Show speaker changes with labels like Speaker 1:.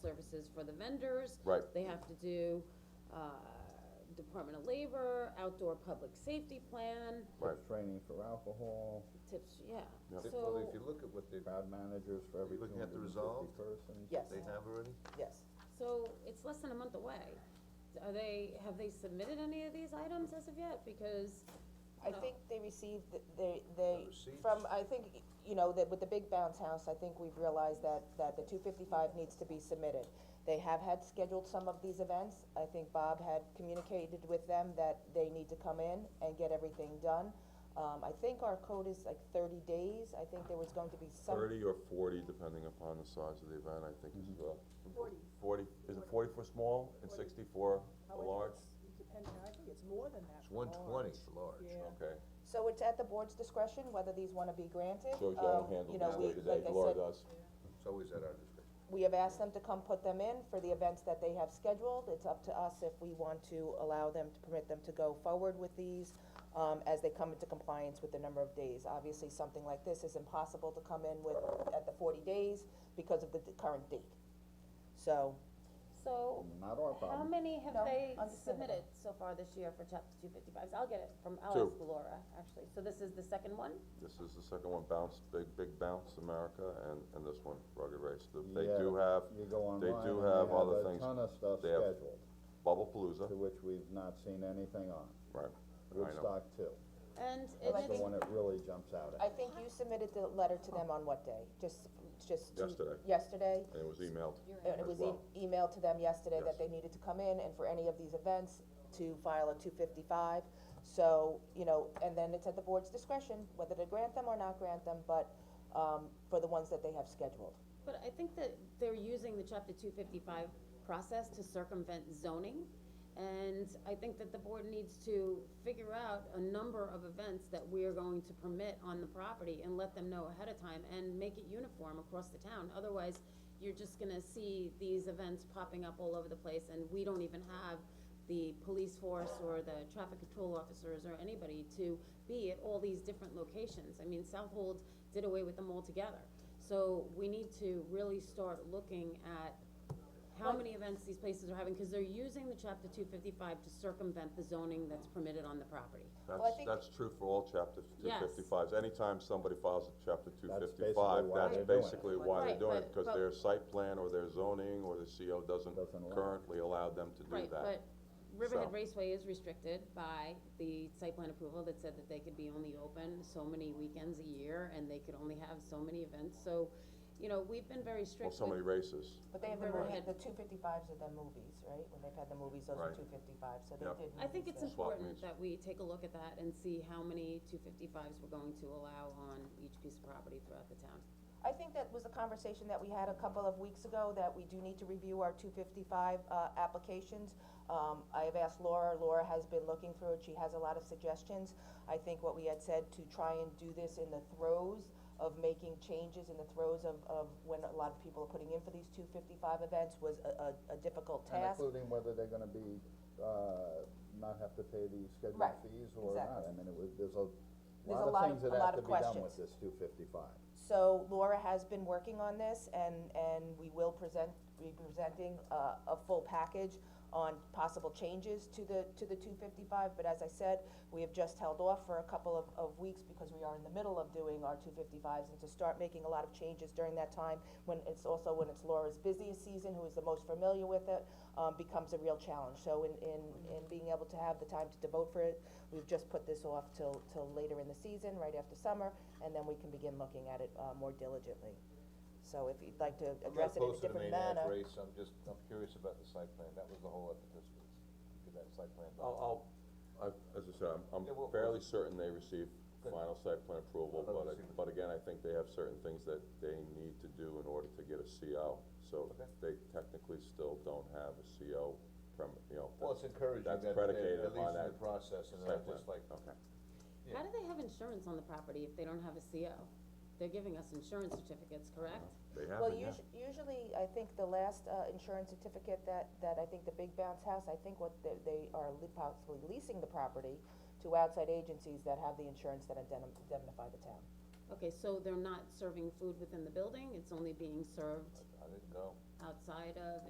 Speaker 1: services for the vendors.
Speaker 2: Right.
Speaker 1: They have to do, uh, Department of Labor, outdoor public safety plan,
Speaker 2: Right.
Speaker 3: Training for alcohol,
Speaker 1: tips, yeah,
Speaker 2: Yeah.
Speaker 1: so.
Speaker 4: Well, if you look at what they,
Speaker 3: crowd managers for every
Speaker 4: you
Speaker 3: two
Speaker 4: looking at
Speaker 3: hundred and
Speaker 4: the resolve?
Speaker 3: fifty persons.
Speaker 5: Yes,
Speaker 4: they have already,
Speaker 5: yes.
Speaker 1: So it's less than a month away. Are they, have they submitted any of these items as of yet? Because,
Speaker 5: I
Speaker 6: Oh.
Speaker 1: No.
Speaker 5: think they received, th- they, they,
Speaker 4: receipts.
Speaker 5: from, I think, you know, that with the big bounce house, I think we've realized that, that the two fifty-five needs to be submitted. They have had scheduled some of these events, I think Bob had communicated with them that they need to come in and get everything done. Um, I think our code is like thirty days, I think there was going to be some.
Speaker 2: Thirty or forty, depending upon the size of the event, I think
Speaker 3: Mm-hmm.
Speaker 2: is, uh. Forty. is it forty for small and sixty for a large?
Speaker 6: Depending, I think it's more than that.
Speaker 4: it's one twenty large.
Speaker 6: Yeah.
Speaker 2: Okay,
Speaker 5: So it's at the board's discretion whether these wanna be granted,
Speaker 2: shows you I
Speaker 5: um,
Speaker 2: don't handle
Speaker 5: you know,
Speaker 2: this
Speaker 5: we,
Speaker 2: day to day,
Speaker 5: like I
Speaker 2: Laura
Speaker 5: said,
Speaker 2: does.
Speaker 4: It's always at our discretion.
Speaker 5: We have asked them to come put them in for the events that they have scheduled. It's up to us if we want to allow them, to permit them to go forward with these, um, as they come into compliance with the number of days. Obviously, something like this is impossible to come in with, at the forty days because of the d- current date. So,
Speaker 1: so,
Speaker 3: Not our
Speaker 1: how
Speaker 3: problem.
Speaker 1: many have
Speaker 5: No,
Speaker 1: they
Speaker 5: understandable.
Speaker 1: submitted so far this year for chapter two fifty-fives? I'll get it from, I'll
Speaker 2: Two.
Speaker 1: ask Laura, actually. So this is the second one?
Speaker 2: This is the second one, Bounce, Big, Big Bounce America, and, and this one, Rugged Race. The- They
Speaker 3: Yeah,
Speaker 2: do have
Speaker 3: You go online,
Speaker 2: they
Speaker 3: and
Speaker 2: do
Speaker 3: they
Speaker 2: have
Speaker 3: have
Speaker 2: other
Speaker 3: a
Speaker 2: things.
Speaker 3: ton of stuff
Speaker 2: They have-
Speaker 3: scheduled,
Speaker 2: Bubble
Speaker 3: to
Speaker 2: Palooza,
Speaker 3: which we've not seen anything on.
Speaker 2: right, I know.
Speaker 3: Woodstock too,
Speaker 1: And
Speaker 5: Like
Speaker 1: it
Speaker 3: the
Speaker 1: is,
Speaker 3: one that really jumps out
Speaker 5: I
Speaker 3: at.
Speaker 5: think you submitted the letter to them on what day? Just, just. to-
Speaker 2: Yesterday.
Speaker 5: Yesterday?
Speaker 2: And it was emailed.
Speaker 5: And it
Speaker 2: As
Speaker 5: was
Speaker 2: well.
Speaker 5: e- emailed to them yesterday
Speaker 2: Yes.
Speaker 5: that they needed to come in and for any of these events to file a two fifty-five. So, you know, and then it's at the board's discretion whether to grant them or not grant them, but, um, for the ones that they have scheduled.
Speaker 1: but I think that they're using the chapter two fifty-five process to circumvent zoning. And I think that the board needs to figure out a number of events that we are going to permit on the property and let them know ahead of time and make it uniform across the town. Otherwise, you're just gonna see these events popping up all over the place and we don't even have the police force or the traffic control officers or anybody to be at all these different locations. I mean, Southold did away with them altogether. So we need to really start looking at how many events these places are having, cause they're using the chapter two fifty-five to circumvent the zoning that's permitted on the property.
Speaker 5: Well, I
Speaker 2: That's,
Speaker 5: think-
Speaker 2: that's true for all chapter two
Speaker 1: Yes.
Speaker 2: fifty-fives, anytime somebody files a chapter two
Speaker 3: That's basically
Speaker 2: fifty-five,
Speaker 3: why
Speaker 2: that's
Speaker 3: they're doing it.
Speaker 2: basically why they're
Speaker 1: Right,
Speaker 2: doing it,
Speaker 1: but-
Speaker 2: cause
Speaker 1: but-
Speaker 2: their site plan or their zoning or the CO doesn't
Speaker 3: Doesn't allow it.
Speaker 2: currently allow them to do that.
Speaker 1: Right, but Riverhead
Speaker 2: So-
Speaker 1: Raceway is restricted by the site plan approval that said that they could be only open so many weekends a year, and they could only have so many events, so, you know, we've been very
Speaker 2: Well,
Speaker 1: strict
Speaker 2: so many
Speaker 1: with,
Speaker 2: races,
Speaker 5: But they have the
Speaker 1: Right.
Speaker 5: movie, the two fifty-fives are the movies, right? When they've had the movies, those are
Speaker 2: Right.
Speaker 5: two fifty-fives, so they
Speaker 2: Yep.
Speaker 5: did.
Speaker 1: I think
Speaker 5: movies
Speaker 1: it's
Speaker 5: then.
Speaker 2: Swap
Speaker 1: important
Speaker 2: meets.
Speaker 1: that we take a look at that and see how many two fifty-fives we're going to allow on each piece of property throughout the town.
Speaker 5: I think that was a conversation that we had a couple of weeks ago, that we do need to review our two fifty-five, uh, applications. Um, I have asked Laura, Laura has been looking through it, she has a lot of suggestions. I think what we had said to try and do this in the throes of making changes, in the throes of, of when a lot of people are putting in for these two fifty-five events was a, a, a difficult
Speaker 3: And
Speaker 5: task.
Speaker 3: including whether they're gonna be, uh, not have to pay the scheduled
Speaker 5: Right,
Speaker 3: fees or not,
Speaker 5: exactly.
Speaker 3: I mean, it was, there's a
Speaker 5: There's
Speaker 3: lot
Speaker 5: a lot
Speaker 3: of
Speaker 5: of-
Speaker 3: things
Speaker 5: a
Speaker 3: that
Speaker 5: lot
Speaker 3: have to
Speaker 5: of
Speaker 3: be done with
Speaker 5: questions.
Speaker 3: this two fifty-five.
Speaker 5: So Laura has been working on this and, and we will present, be presenting uh, a, a full package on possible changes to the, to the two fifty-five, but as I said, we have just held off for a couple of, of weeks because we are in the middle of doing our two fifty-fives and to start making a lot of changes during that time when it's also, when it's Laura's busiest season, who is the most familiar with it, um, becomes a real challenge. So in, in, in being able to have the time to devote for it, we've just put this off till, till later in the season, right after summer, and then we can begin looking at it, uh, more diligently. So if you'd like to address it in a different
Speaker 4: I'm
Speaker 5: manner.
Speaker 4: not opposed to the Maniac Race, I'm just, I'm curious about the site plan, that was the whole effort this was, get that site plan done.
Speaker 2: I'll, I'll, I, as I said, I'm,
Speaker 4: Yeah,
Speaker 2: I'm
Speaker 4: we'll-
Speaker 2: fairly certain they received
Speaker 4: Good.
Speaker 2: final site plan approval,
Speaker 4: I'll
Speaker 2: but, I-
Speaker 4: see what-
Speaker 2: but again, I think they have certain things that they need to do in order to get a CO. So
Speaker 4: Okay.
Speaker 2: they technically still don't have a CO from, you know.
Speaker 4: Well, it's encouraging that
Speaker 2: that's
Speaker 4: they're
Speaker 2: predicated
Speaker 4: at
Speaker 2: upon
Speaker 4: least in
Speaker 2: that
Speaker 4: the process and
Speaker 2: site
Speaker 4: not just
Speaker 2: plan.
Speaker 4: like,
Speaker 2: Okay.
Speaker 1: How do they have insurance on the property if they don't have a CO? They're giving us insurance certificates, correct?
Speaker 2: They
Speaker 5: Well,
Speaker 2: haven't yet.
Speaker 5: usu- usually, I think the last, uh, insurance certificate that, that I think the Big Bounce House, I think what they, they are li- possibly leasing the property to outside agencies that have the insurance that indemn- indemnify the town.
Speaker 1: Okay, so they're not serving food within the building, it's only being served
Speaker 4: I didn't know.
Speaker 1: outside of